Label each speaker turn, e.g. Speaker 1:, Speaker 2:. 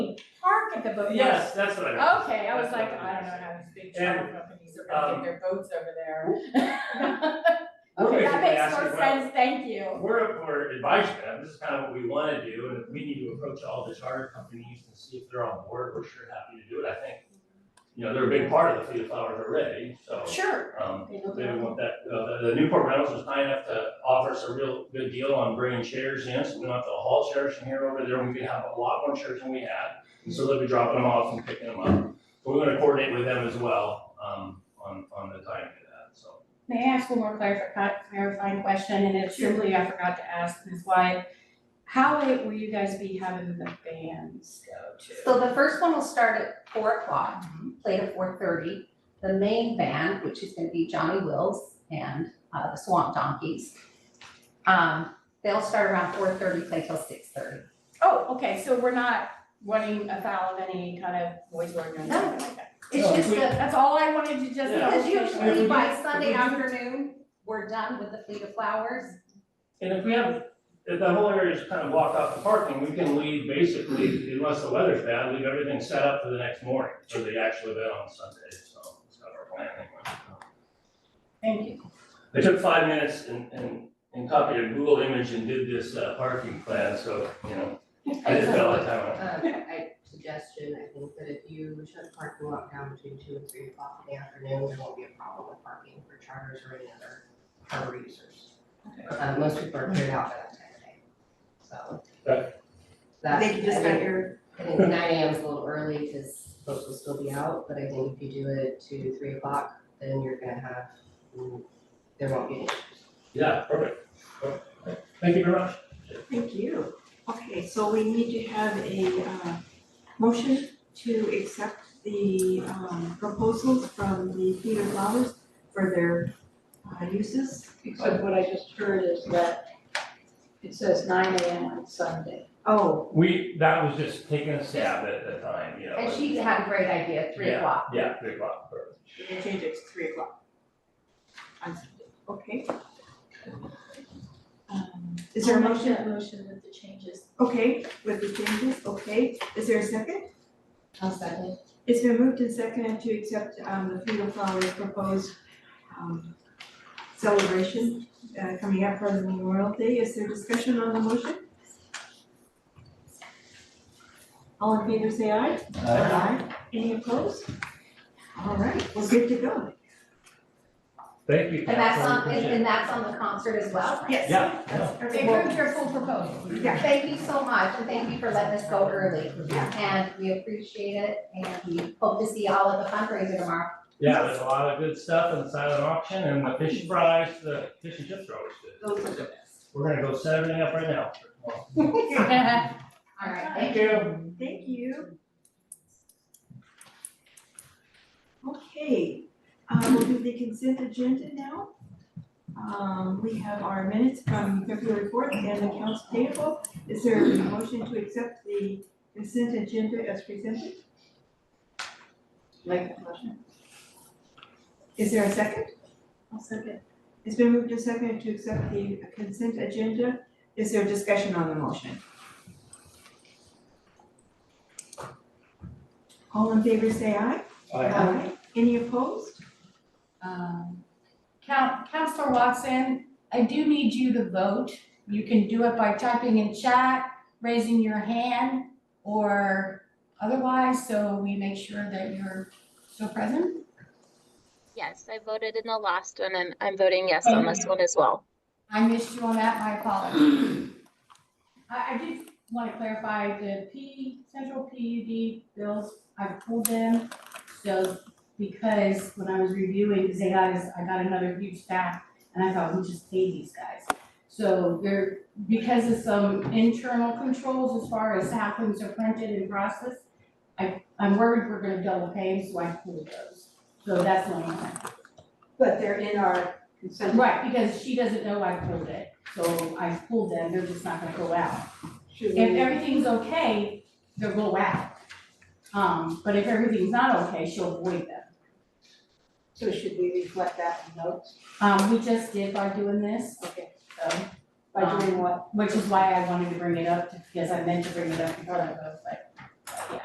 Speaker 1: park at the boat
Speaker 2: Yes, that's what I meant.
Speaker 1: house. Okay, I was
Speaker 2: That's
Speaker 1: like,
Speaker 2: what
Speaker 1: I
Speaker 2: it
Speaker 1: don't know
Speaker 2: is.
Speaker 1: how these big
Speaker 2: And,
Speaker 1: travel companies are gonna
Speaker 2: um,
Speaker 1: get their boats over there.
Speaker 2: We're
Speaker 3: Okay.
Speaker 1: That
Speaker 2: basically
Speaker 1: makes more
Speaker 2: asking, well,
Speaker 1: sense, thank you.
Speaker 2: we're, we're advising them, this is kind of what we want to do, and if we need to approach all the charter companies and see if they're on board, we're sure happy to do it, I think. You know, they're a big part of the Fleet of Flowers already, so,
Speaker 3: Sure.
Speaker 2: um,
Speaker 3: They look
Speaker 2: they
Speaker 3: at it.
Speaker 2: want that, uh, the, the Newport Rentals was kind enough to offer us a real good deal on bringing chairs in, so we don't have to haul chairs from here over there, we could have a lot more chairs than we had. And so they'll be dropping them off and picking them up, but we're gonna coordinate with them as well, um, on, on the timing of that, so.
Speaker 3: May I ask one more clarifying, clarifying question, and it's simply I forgot to ask, is why, how late will you guys be having the bands go to? Mm-hmm.
Speaker 4: So the first one will start at four o'clock, play to four thirty. The main band, which is gonna be Johnny Wills and uh, the Swamp Donkeys. Um, they'll start around four thirty, play till six thirty.
Speaker 3: Oh, okay, so we're not running afoul of any kind of noise ordinance or anything like that.
Speaker 4: It's
Speaker 2: Oh,
Speaker 4: just
Speaker 2: we-
Speaker 4: that,
Speaker 3: That's all I wanted to just know.
Speaker 2: Yeah.
Speaker 4: because usually by Sunday
Speaker 2: Mhm.
Speaker 4: afternoon, we're done with the Fleet of Flowers.
Speaker 2: And if we have, if the whole area is kind of blocked off the parking, we can leave basically, unless the weather's bad, leave everything set up for the next morning, for the actual event on Sunday, so it's not our plan anyway.
Speaker 3: Thank you.
Speaker 2: I took five minutes and, and, and copied a Google image and did this, uh, parking plan, so, you know, I just got a lot of time on it.
Speaker 5: Uh, I, suggestion, I think that if you shut the parking lot down between two and three o'clock in the afternoon, there won't be a problem with parking for charters or any other harbor users. Uh, most people are cleared out by that time of day, so.
Speaker 2: Okay.
Speaker 5: That,
Speaker 6: They can just
Speaker 5: I think-
Speaker 6: get your,
Speaker 5: I think nine AM is a little early because folks will still be out, but I think if you do it to three o'clock, then you're gonna have, mm, there won't be any issues.
Speaker 2: Yeah, perfect. Perfect. Thank you very much.
Speaker 6: thank you. Okay, so we need to have a uh motion to accept the um proposals from the Theater Flowers for their uh uses.
Speaker 7: Except what I just heard is that it says nine AM on Sunday.
Speaker 6: Oh,
Speaker 2: We, that was just taking a stab at the time, you know.
Speaker 4: And she had a great idea, three
Speaker 2: Yeah.
Speaker 4: o'clock.
Speaker 2: Yeah, three o'clock, perfect.
Speaker 6: we can change it to three o'clock. On Sunday, okay. Um is there a
Speaker 3: I'll make
Speaker 6: motion?
Speaker 3: that Motion with the changes.
Speaker 6: Okay, with the changes, okay. Is there a second?
Speaker 5: How's that?
Speaker 6: It's been moved and seconded to accept um the Freedom Flowers proposed um celebration uh coming up for the Memorial Day. Is there discussion on the motion? All in favor say aye. Aye. Any opposed? All right, we're good to go.
Speaker 2: Thank you.
Speaker 4: And that's on, and and that's on the concert as well.
Speaker 6: Yes.
Speaker 2: Yeah,
Speaker 6: That's
Speaker 4: They
Speaker 6: perfect.
Speaker 4: approved your full proposal.
Speaker 6: Yeah.
Speaker 4: Thank you so much, and thank you for letting us go early. And we appreciate it, and we hope to see you all at the fundraiser tomorrow.
Speaker 2: Yeah, there's a lot of good stuff in the silent auction and the fish fries, the fish and chips are always good.
Speaker 6: Those are the best.
Speaker 2: We're gonna go set everything up right now.
Speaker 4: All right,
Speaker 2: Thank
Speaker 4: thank
Speaker 2: you.
Speaker 6: Thank you. Okay, uh, we'll do the consent agenda now. Um, we have our minutes from February fourth and accounts payable. Is there a motion to accept the consent agenda as presented?
Speaker 7: Like a motion?
Speaker 6: Is there a second?
Speaker 7: I'll second.
Speaker 6: It's been moved and seconded to accept the consent agenda. Is there discussion on the motion? All in favor say aye. Aye. Any opposed?
Speaker 1: Um, Coun- Counselor Watson, I do need you to vote. You can do it by typing in chat, raising your hand, or otherwise, so we make sure that you're still present.
Speaker 8: Yes, I voted in the last one and I'm voting yes on this one as well.
Speaker 1: I missed you on that, my apologies. I, I did want to clarify the P, central PUD bills, I pulled them. So because when I was reviewing, because they got us, I got another huge stack and I thought, we just pay these guys. So there, because of some internal controls as far as how things are printed and processed, I, I'm worried we're gonna double pay, so I pulled those. So that's the only thing.
Speaker 7: But they're in our consent.
Speaker 1: Right, because she doesn't know I pulled it, so I pulled them, they're just not gonna go out.
Speaker 7: Should
Speaker 1: If
Speaker 7: we,
Speaker 1: everything's okay, they'll go out. Um, but if everything's not okay, she'll avoid them.
Speaker 7: so should we reflect that in notes?
Speaker 1: Um, we just did by doing this,
Speaker 7: Okay.
Speaker 1: so,
Speaker 7: By doing what?
Speaker 6: Um,
Speaker 1: which is why I wanted to bring it up, because I meant to bring it up in front of us, but